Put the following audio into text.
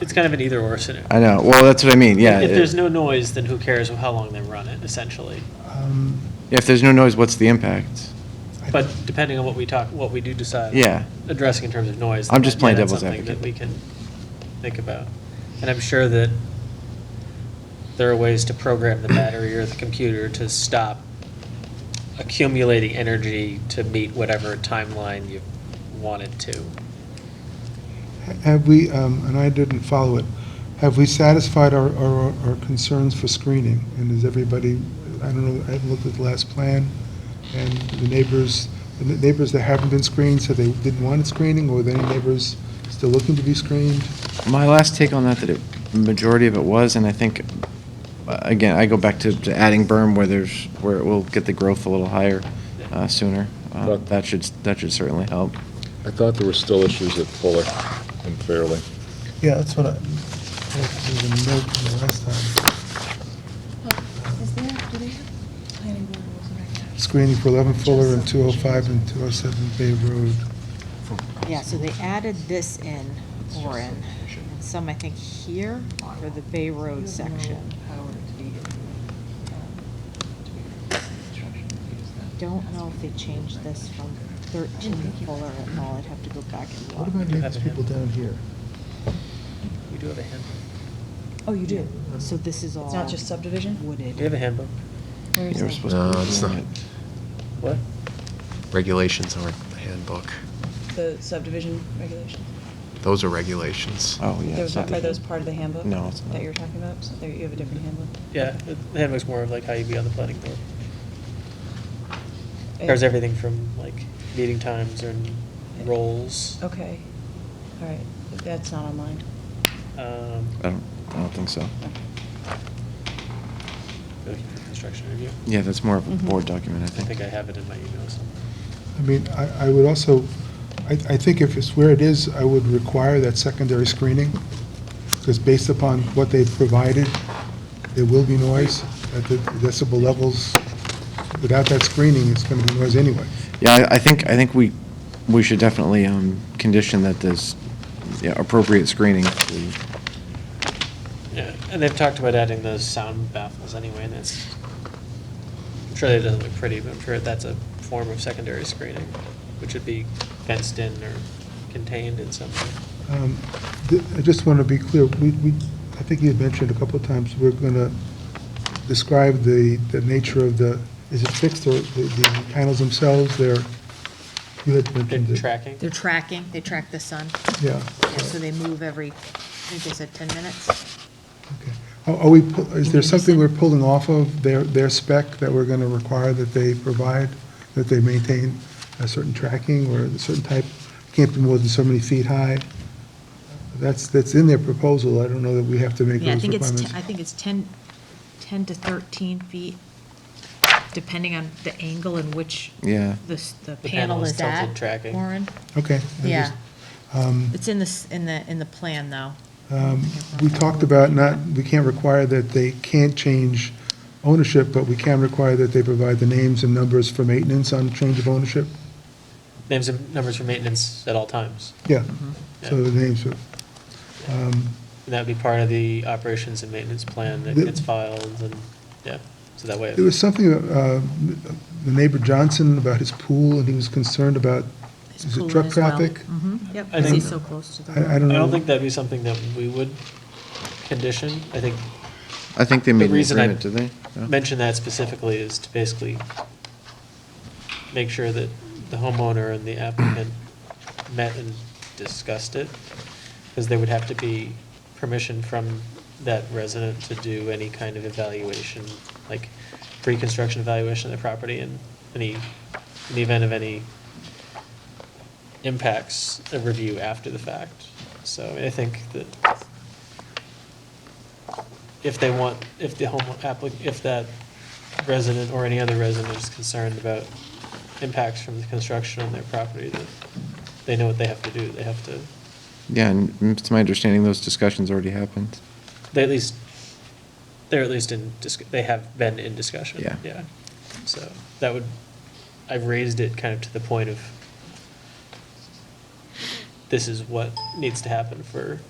it's kind of an either or scenario. I know, well, that's what I mean, yeah. If there's no noise, then who cares how long they run it, essentially. Um, If there's no noise, what's the impact? I- But depending on what we talk, what we do decide. Yeah. Addressing in terms of noise. I'm then that- just yeah, playing that's devil's something that advocate. We can think about. And I'm sure that there are ways to program the battery or the computer to stop accumulating energy to meet whatever timeline you want it to. Have we, um, and I didn't follow it, have we satisfied our, our our concerns for screening? And is everybody, I don't know, I haven't looked at the last plan, and the neighbors, the neighbors that haven't been screened, so they didn't want screening, or were there any neighbors still looking to be screened? My last take on that, that it, majority of it was, and I think, uh, again, I go back to to adding berm where there's, where it will get the growth a little higher uh, sooner. Uh, But- That should, that should certainly help. I thought there were still issues at Fuller and Fairleigh. Yeah, that's what I, there's a note from the last time, Is there, do they have planning board rules and regulations? screening for 11 Fuller and 205 and 207 Bay Road. Yeah, so they added this in Orin, and some, I think, here for the Bay Road section. Don't know if they changed this from 13 to Fuller at all, I'd have to go back and What look. about have these a people down here? We do have a handbook. Oh, you do? So this is all. It's not just subdivision? Wooded. We have a handbook. Where is You were that? supposed to No, be it's doing not. it. What? Regulations aren't the handbook. The subdivision regulations? Those are regulations. Oh, yeah. it's Those- not the- Are those part of the handbook? No, it's not. That you're talking about? So there, you have a different handbook? Yeah, the handbook's more of like how you be on the planning board. Covers everything from like meeting times and roles. Okay, all right, that's not online. Um, I don't, I don't think so. like the construction review. Yeah, that's more of Mm-hmm. a board document, I I think think. I have it in my email somewhere. I mean, I, I would also, I, I think if it's where it is, I would require that secondary screening, because based upon what they've provided, there will be noise at the decibel levels. Without that screening, it's going to be noise anyway. Yeah, I I think, I think we, we should definitely um, condition that there's yeah, appropriate screening. Yeah, and they've talked about adding those sound baffles anyway, and that's, I'm sure that doesn't look pretty, but I'm sure that's a form of secondary screening, which would be fenced in or contained in some way. Um, th- I just want to be clear, we, we, I think you had mentioned a couple of times, we're going to describe the, the nature of the, is it fixed or the the panels themselves, they're, you had mentioned Good it. tracking. They're tracking, they track the sun, Yeah. yeah, so they move every, I think they said 10 minutes. Okay. Are are we, pu- is there Interesting. something we're pulling off of their, their spec that we're going to require that they provide, that they maintain a certain tracking or a certain type? Can't be more than so many feet high? That's, that's in their proposal. I don't know that we have to make Yeah, I those think it's, requirements. te- I think it's 10, 10 to 13 feet, depending on the angle in which Yeah. the, s- the The panel panel is is at. tilted tracking. Warren, Okay. I yeah. just- um, It's in the, s- in the, in the plan, though. um, We talked about not, we can't require that they can't change ownership, but we can require that they provide the names and numbers for maintenance on change of ownership? Names and numbers for maintenance at all times. Yeah. Mm-hmm. So the names are. And that would be part of the operations and maintenance plan that The- gets filed and, yeah, so that way. There was something, uh, the neighbor Johnson, about his pool, and he was concerned about, It's is pulling it truck as well. traffic? Mhm, Yep, I because think- he's so close to the I I road. don't I know. don't think that'd be something that we would condition. I think I think they The made an reason I agreement, did they? No? mention that specifically is to basically make sure that the homeowner and the applicant met and discussed it, because there would have to be permission from that resident to do any kind of evaluation, like pre-construction evaluation of the property and any, in the event of any impacts, a review after the fact. So I think that if they want, if the home applic, if that resident or any other resident is concerned about impacts from the construction on their property, that they know what they have to do. They have to, Yeah, and mm, it's my understanding those discussions already happened. they at least, they're at least in, dis- they have been in discussion. Yeah. Yeah. So that would, I've raised it kind of to the point of this is what needs to happen for